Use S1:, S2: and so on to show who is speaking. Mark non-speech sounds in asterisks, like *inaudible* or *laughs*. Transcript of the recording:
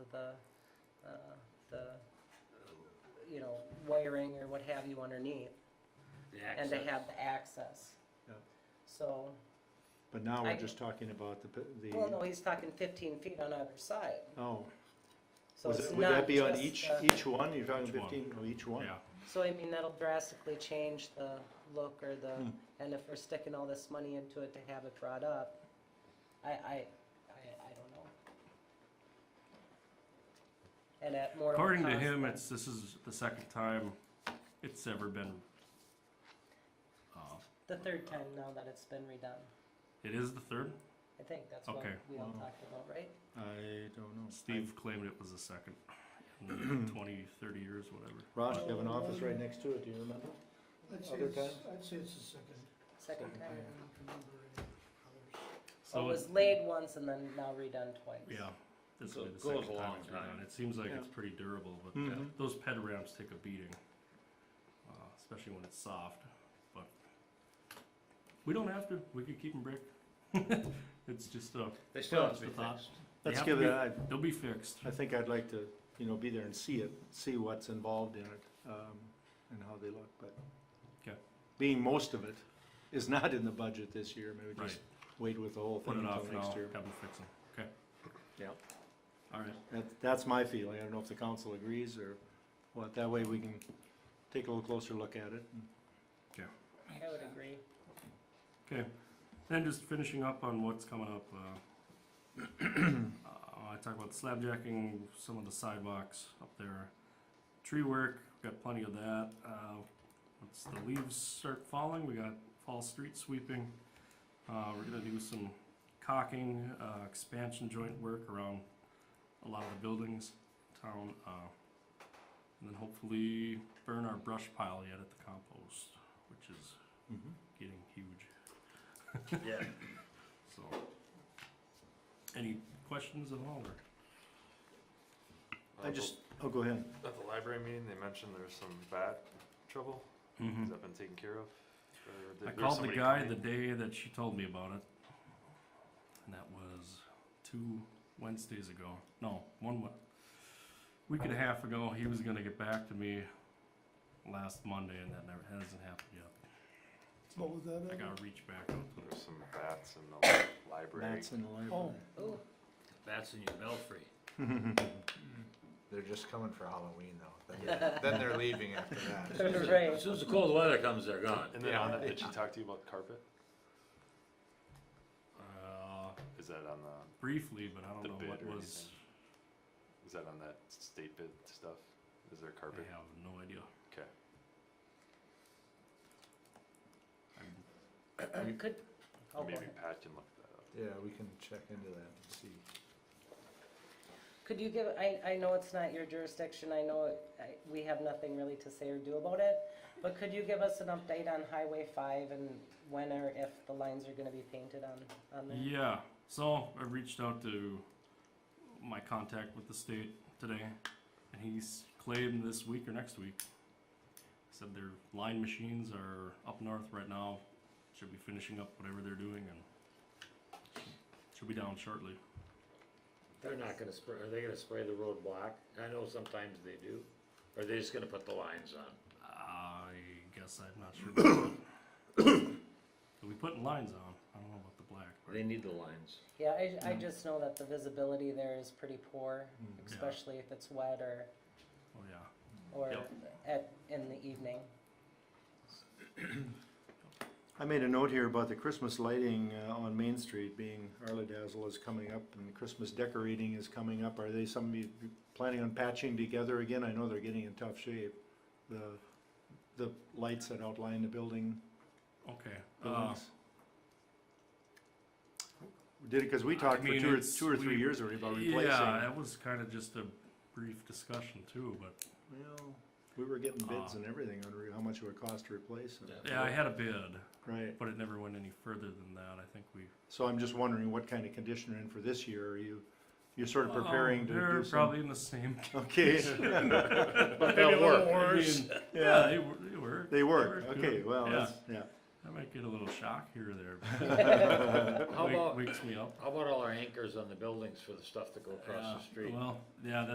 S1: the, uh, the, you know, wiring or what have you underneath,
S2: The
S1: and to
S2: access.
S1: have the access.
S3: Yep.
S1: So,
S3: But now
S1: I-
S3: we're just talking about the, p-
S1: well, no,
S3: the,
S1: he's talking fifteen feet on either side,
S3: oh,
S1: so
S3: was
S1: it's
S3: it-
S1: not
S3: would that be on
S1: just
S3: each,
S1: the-
S3: each one? You're talking
S4: Each one.
S3: fifteen, oh, each one?
S4: Yeah,
S1: So I mean, that'll drastically change the look or the,
S3: Hmm.
S1: and if we're sticking all this money into it to have it brought up, I, I, I, I don't know. And at more. of a
S4: according to
S1: cost
S4: him,
S1: than-
S4: it's, this is the second time it's ever been. uh,
S1: The third time now that it's been redone,
S4: It is the third?
S1: I think that's what
S4: Okay.
S1: we all
S3: Wow.
S1: talked about, right?
S3: I don't know.
S4: Steve claimed it was the second
S3: *clears throat*
S4: in twenty, thirty years, whatever.
S3: Ross, you have an office right next to it, do you remember?
S5: I'd say
S3: Other
S5: it's,
S3: times?
S5: I'd say it's the second.
S1: Second time.
S5: I don't remember any others.
S1: So it
S3: Oh,
S4: So,
S1: was laid once and then now redone twice.
S4: yeah, this
S2: So
S4: will be
S2: it
S4: the
S2: goes
S4: second
S2: a
S4: time
S2: long
S4: it's
S2: time.
S4: been done. It seems like
S3: Yeah.
S4: it's pretty durable, but
S3: Mhm.
S4: that- those ped ramps take a beating. uh, Especially when it's soft, but we don't have to, we could keep them brick. *laughs* It's just, uh,
S2: They still have
S4: That's
S2: to be
S4: the thought.
S2: fixed.
S4: they
S3: Let's
S4: have
S3: give
S4: to
S3: it,
S4: be-
S3: I,
S4: they'll be fixed.
S3: I think I'd like to, you know, be there and see it, see what's involved in it, um, and how they look, but.
S4: 'Kay.
S3: Being most of it is not in the budget this year, maybe
S4: Right,
S3: just wait with the whole
S4: put
S3: thing
S4: it off
S3: until
S4: now,
S3: next
S4: have
S3: year.
S4: them fix them, okay?
S3: Yep.
S4: Alright,
S3: That, that's my feeling, I don't know if the council agrees or what, that way we can take a little closer look at it. and-
S1: I would agree.
S4: okay, then just finishing up on what's coming up, uh. *clears throat* Uh, I talked about slabjacking, some of the sidewalks up there, tree work, got plenty of that, uh, once the leaves start falling, we got fall street sweeping. Uh, we're gonna do some caulking, uh, expansion joint work around a lot of the buildings, town, uh, and then hopefully burn our brush pile yet at the compost, which is
S3: Mhm.
S4: getting huge,
S2: Yeah.
S4: so. Any questions at all, or?
S3: I just, oh, go ahead.
S6: At the library meeting, they mentioned there's some bat trouble. Has that been taken care of? Or did-
S4: Hmm. I
S6: there's
S4: called the
S6: somebody
S4: guy
S6: coming?
S4: the day that she told me about it, and that was two Wednesdays ago. No, one Wed- week and a half ago. He was gonna get back to me last Monday, and that never hasn't happened yet.
S5: What was that?
S4: I
S5: Evan?
S4: gotta reach back out to him.
S6: There's some bats in
S4: *coughs*
S6: the library.
S3: Bats in the library.
S5: Oh.
S1: Ooh,
S2: Bats in your belfry.
S7: They're just coming for Halloween
S3: *laughs*
S7: though. Then they're, then they're leaving after that.
S1: *laughs* right.
S2: As soon as the cold weather comes, they're gone.
S6: And then on that, did she talk to you about carpet?
S4: Uh,
S6: Is that on the,
S4: briefly, but I don't
S6: The
S4: know what
S6: bid or
S4: was.
S6: is that on that state bid stuff? Is there
S4: I
S6: carpet?
S4: have no idea.
S6: Okay.
S1: Could, oh, go
S6: Maybe
S1: ahead.
S6: Pat can look that up.
S7: Yeah, we can check into that and see.
S1: Could you give, I, I know it's not your jurisdiction, I know it- I- we have nothing really to say or do about it, but could you give us an update on Highway 5 and when or if the lines are gonna be painted on, on there?
S4: Yeah. So I reached out to my contact with the state today, and he's claimed this week or next week. Said their line machines are up north right now. Should be finishing up whatever they're doing and should be down shortly.
S2: They're not gonna spray, are they gonna spray the road block? I know sometimes they do. Or are they just gonna put the lines on?
S4: I guess I'm not sure. about that. *coughs* They'll be putting lines on. I don't know about the black.
S2: They need the lines.
S1: Yeah, I, I just know that the visibility there is pretty poor,
S4: Mm,
S1: especially if it's wet or,
S4: Oh yeah.
S1: or
S4: Yep.
S1: at, in the evening.
S3: I made a note here about the Christmas lighting uh, on Main Street being, Arla Dazzle is coming up and Christmas decorating is coming up. Are they some of you planning on patching together again? I know they're getting in tough shape. The, the lights that outline the building,
S4: Okay. Uh,
S3: buildings. Did it, cause we
S4: I
S3: talked for
S4: mean,
S3: two or,
S4: it's-
S3: two or three
S4: we-
S3: years already about replacing.
S4: uh, yeah, that was kind of just a brief discussion too, but
S3: Well, We were getting bids
S4: Uh,
S3: and everything on re- how much it would cost to replace it.
S4: Yeah, I had a bid,
S3: Right,
S4: but it never went any further than that. I think we.
S3: so I'm just wondering what kind of condition you're in for this year, are you, you're sort of preparing to
S4: Oh, They're
S3: do some?
S4: probably in the same.
S3: *laughs*
S4: *laughs*
S3: Okay,
S2: But they'll work.
S4: Worse. yeah, they, wor- they work.
S3: they work,
S4: good.
S3: okay, well,
S4: yeah.
S3: that's, yeah.
S4: I might get a little shock here or there.
S2: How
S4: Wake-
S2: about,
S4: wakes me up.
S2: how about all our anchors on the buildings for the stuff that go across
S4: Yeah,
S2: the street?
S4: Well, yeah,